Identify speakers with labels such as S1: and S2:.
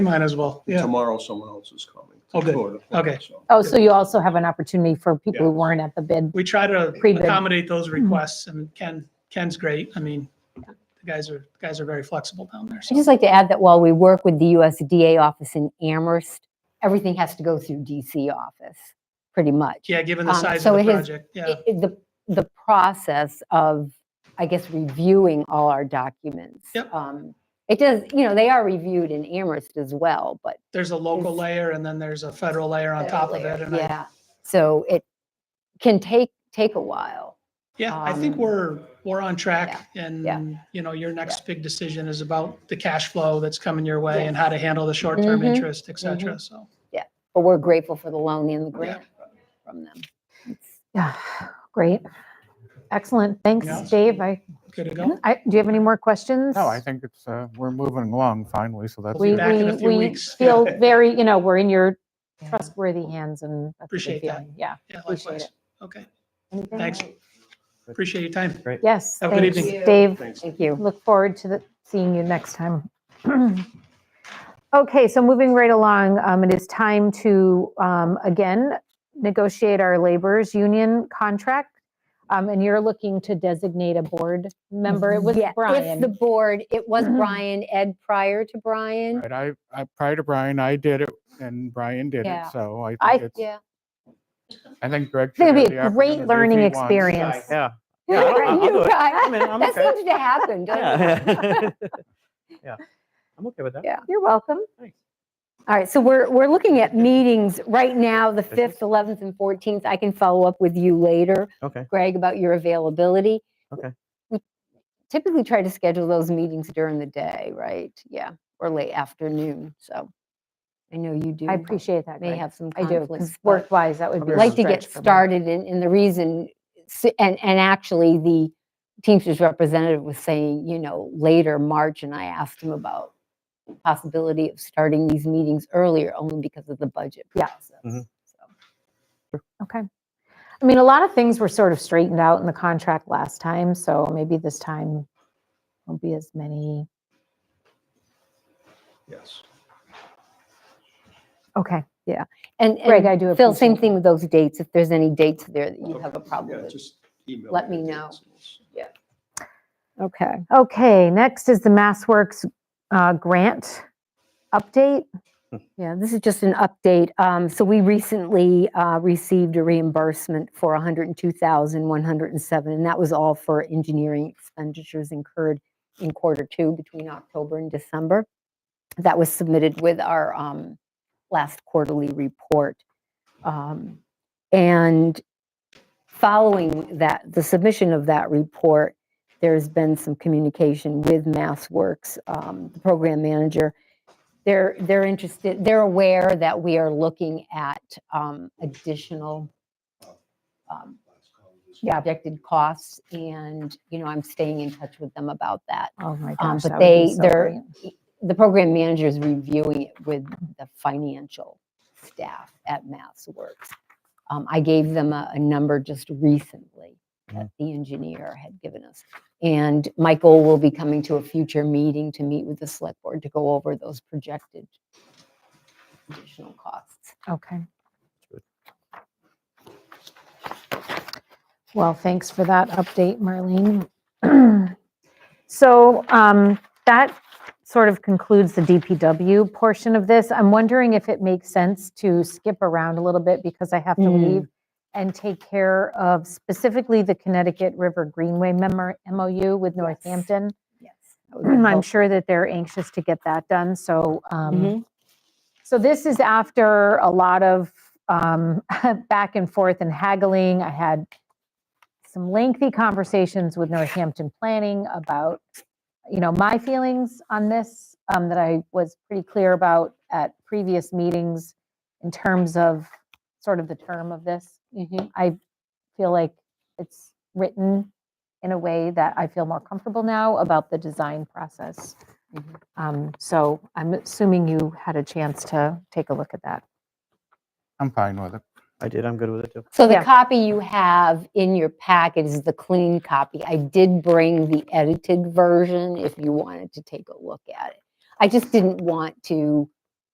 S1: Might as well, yeah.
S2: Tomorrow, someone else is coming. to
S1: Oh, good.
S2: Florida for it,
S1: Okay.
S2: so.
S3: Oh, so you also have an opportunity for people who
S2: Yes.
S3: weren't at the bid.
S1: We try to
S3: Pre-bid.
S1: accommodate those
S4: Mm-hmm.
S1: requests and Ken, Ken's great. I mean, the guys are, the guys are very flexible down there.
S4: I'd
S1: So
S4: just like to add that while we work with the USDA office in Amherst, everything has to go through DC office, pretty much.
S1: yeah, given the
S4: Um,
S1: size
S4: so
S1: of the
S4: it is-
S1: project, yeah.
S4: It- it- The, the process of, I guess, reviewing all our documents.
S1: Yep.
S4: um, It does, you know, they are reviewed in Amherst as well, but.
S1: There's a local
S4: is-
S1: layer and then there's a federal layer on top of it. And I,
S4: Yeah, so it can take, take a while.
S1: yeah, I think
S4: um,
S1: we're, we're on track. And, you know, your next big decision is about the cash flow that's coming your way and how to handle the short-term
S4: Mhm,
S1: interest, et cetera. So,
S4: But we're grateful for the loan and the grant from them.
S3: Yeah, great. Excellent. Thanks,
S1: Yes.
S3: Dave. I,
S1: good to
S4: Mm-hmm.
S1: go.
S3: I, do you have any more questions?
S5: No, I think it's, uh, we're moving along finally, so that's.
S3: We,
S1: be
S5: good.
S1: back in
S3: we,
S1: a few
S3: we
S1: weeks.
S3: feel very, you know, we're in your trustworthy hands and. that's a good
S1: Appreciate that.
S3: feeling. Yeah.
S1: Yeah,
S3: appreciate
S1: likewise.
S3: it.
S1: Okay,
S3: Anything?
S1: thanks. Appreciate your time.
S3: Yes.
S1: Have a good
S3: thanks,
S1: evening.
S3: Dave.
S2: Thanks.
S4: Thank you.
S3: look forward to the, seeing you next time. Okay, so moving right along, um, it is time to, um, again, negotiate our laborers union contract. Um, and you're looking to designate a board member. It was
S4: Yeah, If the
S3: Brian. Mm-hmm.
S4: board, it was Brian, Ed prior to Brian.
S5: Right, I, I, prior to Brian, I did it and Brian did it,
S4: Yeah.
S5: so I
S3: I-
S5: think it's,
S4: Yeah.
S5: I think Greg.
S3: It's
S5: should
S3: gonna
S5: have
S3: be
S5: the
S3: a great
S5: opportunity if
S3: learning
S5: he wants.
S3: experience.
S6: Yeah. Yeah, I'll- I'll- I'll do
S4: You
S6: it.
S4: guys-
S6: I'm in, I'm
S4: That
S6: okay.
S4: seems to happen, doesn't it?
S6: Yeah. Yeah. I'm okay with that.
S4: Yeah.
S3: You're welcome.
S4: All right, so we're, we're looking at meetings right now, the 5th, 11th, and 14th. I can follow up with you later,
S6: Okay.
S4: Greg, about your availability.
S6: Okay.
S4: We Typically try to schedule those meetings during the day, right? Yeah, or late afternoon, so I know you do.
S3: I appreciate that,
S4: May
S3: Greg.
S4: have some
S3: I do, 'cause
S4: conflicts. but-
S3: work-wise, that would be. a
S4: like to get
S3: stretch for me.
S4: started and, and the reason, s- and, and actually the Teamsters representative was saying, you know, later March, and I asked him about possibility of starting these meetings earlier only because of the budget.
S3: Yeah.
S4: process.
S6: Mhm.
S4: So,
S3: Okay. I mean, a lot of things were sort of straightened out in the contract last time, so maybe this time won't be as many.
S2: Yes.
S3: Okay,
S4: And,
S3: Greg, I
S4: and
S3: do
S4: Phil,
S3: appreciate
S4: same
S3: Oh,
S4: thing with those dates. If there's any dates there that you have a
S2: Okay.
S4: problem
S2: Yeah,
S4: with.
S2: just email
S4: let me
S2: the
S4: know.
S2: details.
S4: Okay.
S3: Okay, next is the MassWorks uh, grant update.
S4: Yeah, this is just an update. Um, So we recently uh, received a reimbursement for $102,107, and that was all for engineering expenditures incurred in quarter two between October and December. That was submitted with our um, last quarterly report. Um, And following that, the submission of that report, there's been some communication with MassWorks, um, the program manager, they're they're interested they're aware that we are looking at um, additional um, projected costs and you know i'm staying in touch with them about that
S3: Oh my
S4: Um,
S3: gosh,
S4: but
S3: that would be
S4: they-
S3: so
S4: they're-
S3: great.
S4: the program manager is reviewing it with the financial staff at MassWorks. Um, I gave them a, a number just recently that the engineer had given us. And Michael will be coming to a future meeting to meet with the select board to go over those projected additional costs.
S3: Okay. Well, thanks for that update, Marlene. So um, that sort of concludes the DPW portion of this. I'm wondering if it makes sense to skip around a little bit because I have to
S4: Mm.
S3: leave and take care of specifically the Connecticut River Greenway memor- MOU with Northampton.
S4: Yes.
S3: I'm sure that they're anxious to get that done, so, um, so this is after a lot of, um, back and forth and haggling. I had some lengthy conversations with Northampton Planning about, you know, my feelings on this, um, that I was pretty clear about at previous meetings in terms of sort of the term of this feel like it's written in a way that I feel more comfortable now about the design process.
S4: Mhm.
S3: Um, So I'm assuming you had a chance to take a look at that.
S5: I'm fine with it.
S6: I did. I'm good with it too.
S4: So the
S3: Yeah.
S4: copy you have in your packet is the clean copy. I did bring the edited version if you wanted to take a look at it. I just didn't want to